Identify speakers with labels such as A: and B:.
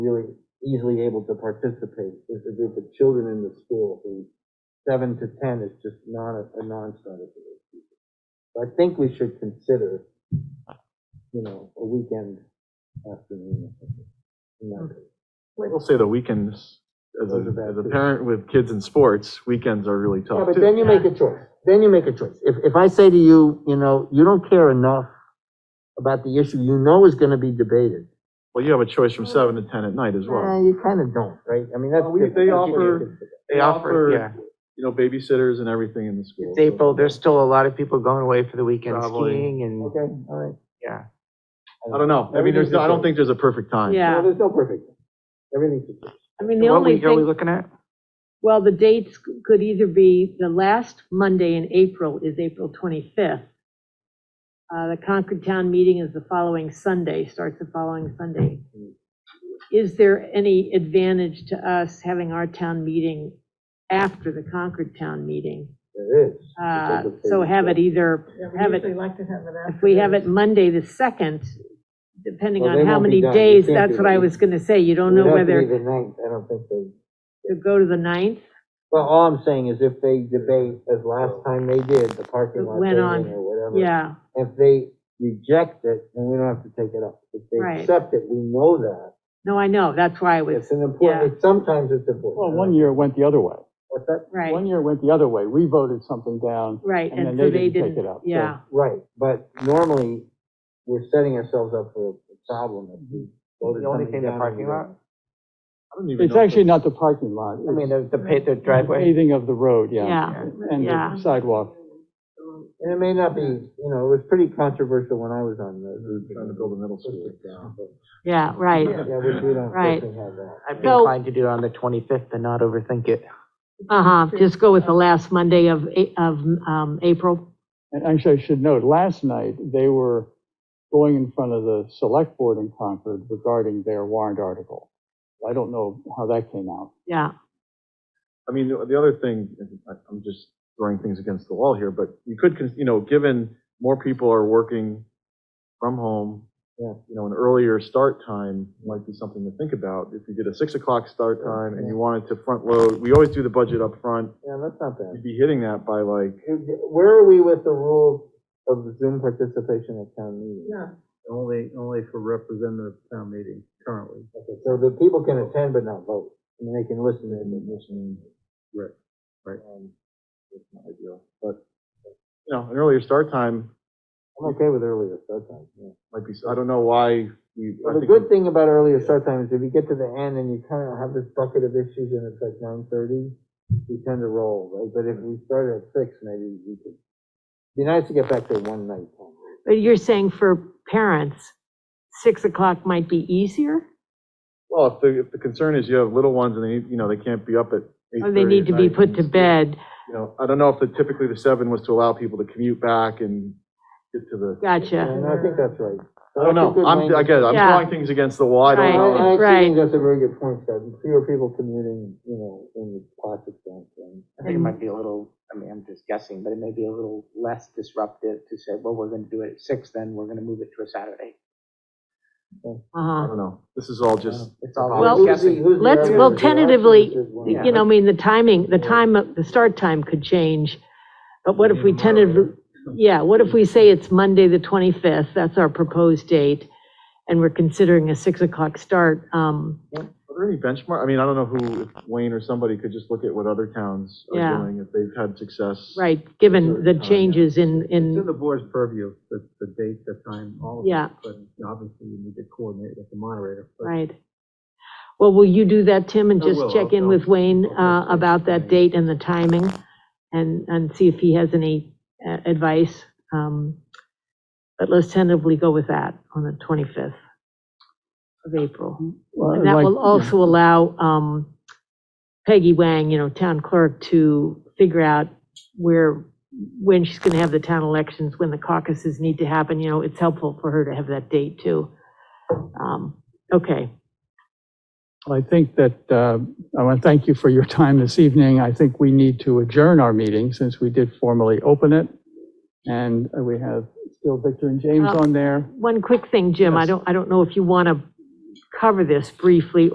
A: really easily able to participate is the group of children in the school who seven to 10 is just not a, a non-starter for those people. So I think we should consider, you know, a weekend afternoon. or something in that case.
B: I will say the weekends, as a,
A: Those are bad
B: as a
A: too.
B: parent with kids in sports, weekends are really
A: Yeah,
B: tough
A: but then
B: too.
A: you make a choice. Then you make a choice. If, if I say to you, you know, you don't care enough about the issue you know is gonna be debated.
B: Well, you have a choice from seven to 10 at night as
A: Well,
B: well.
A: you kinda don't, right? I mean, that's.
B: Well, we-
A: different.
B: they
A: That's
B: offer-
A: different.
B: They
C: yeah.
B: offer, you know, babysitters and everything in the school.
C: It's
B: so-
C: April, there's still a lot of people going away for the weekend
B: Probably.
C: skiing and,
A: Okay, all right.
C: yeah.
B: I don't know. I mean, there's, no- I don't think there's a perfect time.
D: Yeah.
A: No, There's no perfect. Everything's. a choice.
D: I mean, the
C: What
D: only
C: week are we
D: thing,
C: looking at?
D: well, the dates could either be, the last Monday in April is April 25th. Uh, The Concord Town meeting is the following Sunday, starts the following Sunday. Is there any advantage to us having our town meeting after the Concord Town meeting?
A: There is.
D: Uh, So have it either, have it,
E: like to have it after.
D: if we have it Monday the 2nd, depending
A: Well,
D: on
A: they
D: how
A: won't be
D: many
A: done. You
D: days,
A: can't
D: that's
A: do
D: what I
A: it.
D: was going to say. You don't
A: It
D: know
A: would have to be
D: whether
A: The ninth, I don't think they,
D: to go to the 9th.
A: well, all I'm saying is if they debate, as last time they did, the parking
D: It
A: lot
D: went
A: thing
D: on.
A: or whatever.
D: Yeah.
A: If they reject it, then we don't have to take it up. If
D: Right.
A: they accept it, we know that.
D: No, I know, that's why I was,
A: It's an important, it's- sometimes it's important.
F: Well, one year it went the other way.
A: What's that?
F: One
D: right,
F: year it went the other way. We voted something down.
D: right,
F: and
D: and so
F: then
D: they didn't,
F: take it up, so-
D: yeah,
A: Right, but normally, we're setting ourselves up for a problem if we voted
C: The only
A: something
C: thing, the
A: down and
C: parking
A: we don't-
C: lot?
B: I don't even
F: It's
B: know if
F: actually
B: it's-
F: not the parking lot.
C: I mean,
F: it's
C: the, the pa- the
F: the
C: driveway.
F: Paving of the road, yeah.
D: yeah,
F: And
D: yeah.
F: the sidewalk.
A: um, And it may not be, you know, it was pretty controversial when I was on the.
B: They're Trying to build a middle school.
D: Yeah, right.
A: Yeah, which we don't
D: Right.
A: definitely have that.
C: I'd be
D: So-
C: inclined to do it on the 25th and not overthink it.
D: Uh-huh, just go with the last Monday of, A- of, um, April.
F: And actually, I should note, last night, they were going in front of the select board in Concord regarding their warrant article. I don't know how that came out.
D: Yeah,
B: I mean, the the other thing, I- I'm just throwing things against the wall here, but you could, cons- you know, given more people are working from home,
A: Yeah.
B: you know, an earlier start time might be something to think about. If you did a six o'clock start time and you wanted to front load, we always do the budget up front.
A: Yeah, that's not
B: You'd
A: bad.
B: be hitting that by like,
A: Where are we with the rules of Zoom participation at town meetings?
G: Only, only for representative town meeting currently.
A: Okay, so the people can attend but not vote, I mean, they can listen and they listen.
G: Right, right.
A: Um,
B: it's not ideal, but, you know, an earlier start time
A: I'm okay with earlier start time, yeah.
B: might be, I don't know why we. I
A: Well, the
B: think
A: good thing about earlier start time is if you get to the end and you kind of have this bucket of issues and it's like nine thirty, you tend to roll, right? But if we started at six, maybe we could, be nice to get back to one night. time.
D: but you're saying for parents, six o'clock might be easier?
B: Well, if the, if the concern is you have little ones and they, need- you know, they can't be up at eight
D: Or they need to be put to bed?
B: you know, I don't know if the, typically the seven was to allow people to commute back and get to the,
D: Gotcha,
A: And I think that's right.
B: I don't know, I'm, I guess, I'm
D: Yeah.
B: throwing things against the wall, I don't
D: Right.
B: know.
A: I
D: Right.
A: think that's a very good point, Scott. Fewer people commuting, you know, in the classic sense. and-
C: I think it might be a little, I mean, I'm just guessing, but it may be a little less disruptive to say, well, we're gonna do it at six, then we're gonna move it to a Saturday.
B: I
D: uh-huh.
B: don't know, this is all just,
C: It's all
D: Well,
C: just
A: Who's the-
C: guessing.
A: who's the
D: Let's-
A: other-
D: well,
A: the last
D: tentatively,
A: one is one.
C: Yeah.
D: You know, I mean, the timing, the time, of- the start time could change, but what if we tentatively, yeah, what if we say it's Monday, the 25th, that's our proposed date, and we're considering a 6 o'clock start? um,
B: are there any benchmark, I mean, I don't know who, if Wayne or somebody could just look at what other towns
D: Yeah.
B: are doing, if they've had success.
D: Right, given the changes in,
G: It's in
D: in,
G: the board's purview, the, the date, the time, all of it.
D: Yeah.
G: But obviously you need to coordinate with the moderator. but-
D: right. Well, will you do that, Tim, and
G: I
D: just
G: will,
D: check in
G: I'll-
D: with Wayne
G: I'll-
D: uh, about that date and the timing? And, and see if he has any uh, advice? um, But let's tentatively go with that on the 25th of April. And that will also allow um, Peggy Wang, you know, town clerk, to figure out where, when she's going to have the town elections, when the caucuses need to happen, you know, it's helpful for her to have that date too. Um, Okay,
F: I think that, uh, I want to thank you for your time this evening. I think we need to adjourn our meeting since we did formally open it. And uh, we have still Victor and James
D: Well-
F: on there.
D: one quick thing, Jim, I
F: Yes.
D: don't, I don't know if you want to cover this briefly